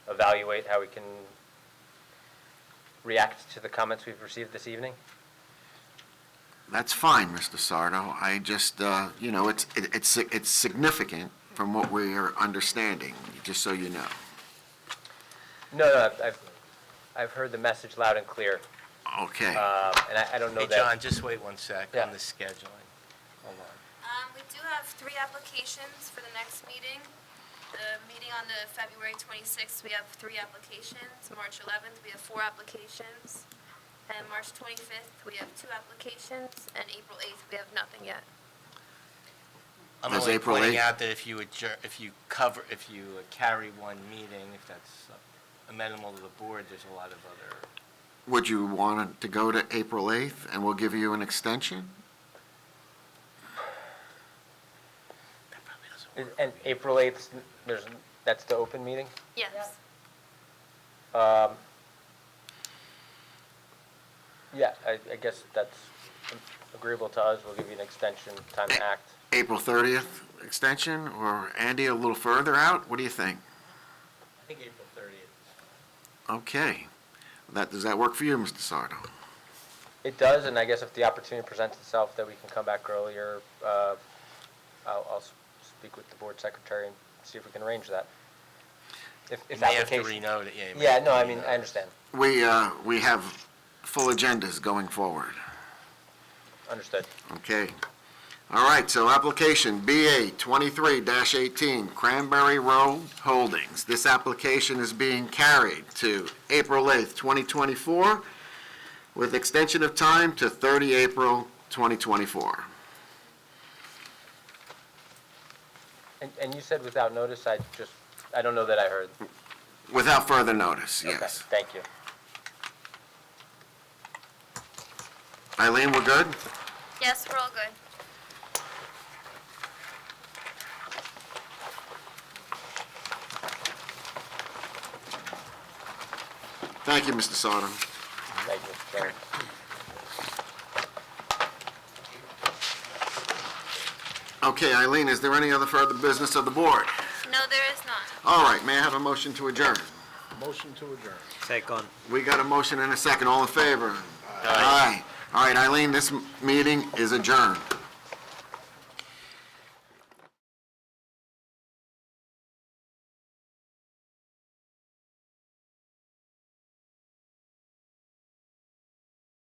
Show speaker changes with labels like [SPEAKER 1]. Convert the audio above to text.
[SPEAKER 1] evaluate how we can react to the comments we've received this evening?
[SPEAKER 2] That's fine, Mr. Sardo. I just, uh, you know, it's, it- it's, si- it's significant from what we are understanding, just so you know.
[SPEAKER 1] No, no, I've- I've, I've heard the message loud and clear,
[SPEAKER 2] Okay.
[SPEAKER 1] um, and I, I don't know
[SPEAKER 3] Hey,
[SPEAKER 1] that.
[SPEAKER 3] John, just wait one sec
[SPEAKER 1] Yeah.
[SPEAKER 3] on the scheduling. Hold on.
[SPEAKER 4] Um, we do have three applications for the next meeting. The meeting on the February twenty-sixth, we have three applications. March eleventh, we have four applications. And March twenty-fifth, we have two applications, and April eighth, we have nothing yet.
[SPEAKER 3] I'm
[SPEAKER 2] That's
[SPEAKER 3] only
[SPEAKER 2] April
[SPEAKER 3] pointing
[SPEAKER 2] 8th.
[SPEAKER 3] out that if you adjourn, if you cover, if you uh, carry one meeting, if that's uh, amenable to the board, there's a lot of other,
[SPEAKER 2] Would you want it to go to April 8th, and we'll give you an extension?
[SPEAKER 3] that probably doesn't
[SPEAKER 1] And-
[SPEAKER 3] work.
[SPEAKER 1] And April 8th, there's, that's the open meeting?
[SPEAKER 4] Yes.
[SPEAKER 1] Um, Yeah, I, I guess that's agreeable to us, we'll give you an extension, time to act.
[SPEAKER 2] April 30th extension, or Andy, a little further out? What do you think?
[SPEAKER 3] I think April 30th.
[SPEAKER 2] Okay. That, does that work for you, Mr. Sardo?
[SPEAKER 1] It does, and I guess if the opportunity presents itself that we can come back earlier, uh, I'll, I'll s- speak with the board secretary and see if we can arrange that. If,
[SPEAKER 3] You
[SPEAKER 1] if
[SPEAKER 3] may have to
[SPEAKER 1] application.
[SPEAKER 3] renote it, yeah. you may
[SPEAKER 1] Yeah,
[SPEAKER 3] have
[SPEAKER 1] no,
[SPEAKER 3] to
[SPEAKER 1] I mean,
[SPEAKER 3] renote
[SPEAKER 1] I
[SPEAKER 3] it.
[SPEAKER 1] understand,
[SPEAKER 2] We, uh, we have full agendas going forward.
[SPEAKER 1] understood.
[SPEAKER 2] Okay. All right, so application BA 23-18 Cranberry Row Holdings. This application is being carried to April 8th, 2024, with extension of time to 30 April 2024.
[SPEAKER 1] And, and you said without notice, I just, I don't know that I heard.
[SPEAKER 2] Without further notice,
[SPEAKER 1] Okay,
[SPEAKER 2] yes.
[SPEAKER 1] Thank you.
[SPEAKER 2] Eileen, we're good?
[SPEAKER 4] Yes, we're all good.
[SPEAKER 2] Thank you, Mr. Sodom.
[SPEAKER 1] Thank you, Mr. Chairman.
[SPEAKER 2] Okay, Eileen, is there any other further business of the board?
[SPEAKER 4] No, there is not.
[SPEAKER 2] All right, may I have a motion to adjourn?
[SPEAKER 5] Motion to adjourn.
[SPEAKER 6] Second.
[SPEAKER 2] We got a motion and a second, all in favor? Aye. All right, Eileen, this m- meeting is adjourned.